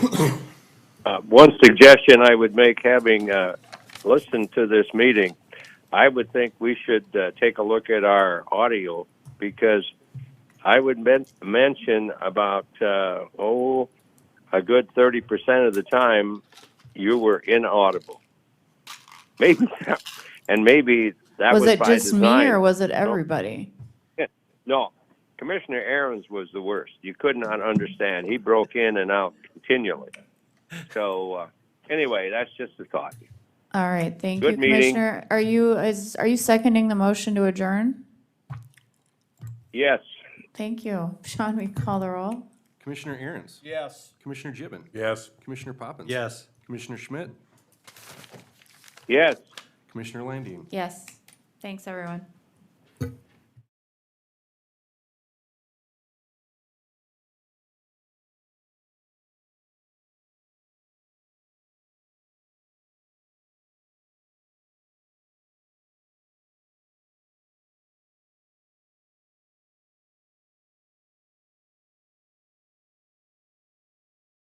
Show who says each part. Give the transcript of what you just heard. Speaker 1: Uh, One suggestion I would make, having uh, listened to this meeting, I would think we should uh, take a look at our audio because I would men- mention about, uh, oh, a good 30% of the time you were inaudible. Maybe, that- and maybe that was,
Speaker 2: Was it
Speaker 1: by
Speaker 2: just
Speaker 1: design.
Speaker 2: me or was it everybody?
Speaker 1: No, Commissioner Aaron's was the worst. You could not understand. He broke in and out continually. So uh, anyway, that's just a thought.
Speaker 2: All right, thank you,
Speaker 1: Good meeting.
Speaker 2: Commissioner. Are you, is, are you seconding the motion to adjourn?
Speaker 1: Yes,
Speaker 2: Thank you. Sean, we call the roll?
Speaker 3: Commissioner Aaron's?
Speaker 4: Yes.
Speaker 3: Commissioner Gibbon?
Speaker 4: Yes.
Speaker 3: Commissioner Poppins?
Speaker 4: Yes.
Speaker 3: Commissioner Schmidt?
Speaker 1: yes.
Speaker 3: Commissioner Landine?
Speaker 2: Yes. Thanks, everyone.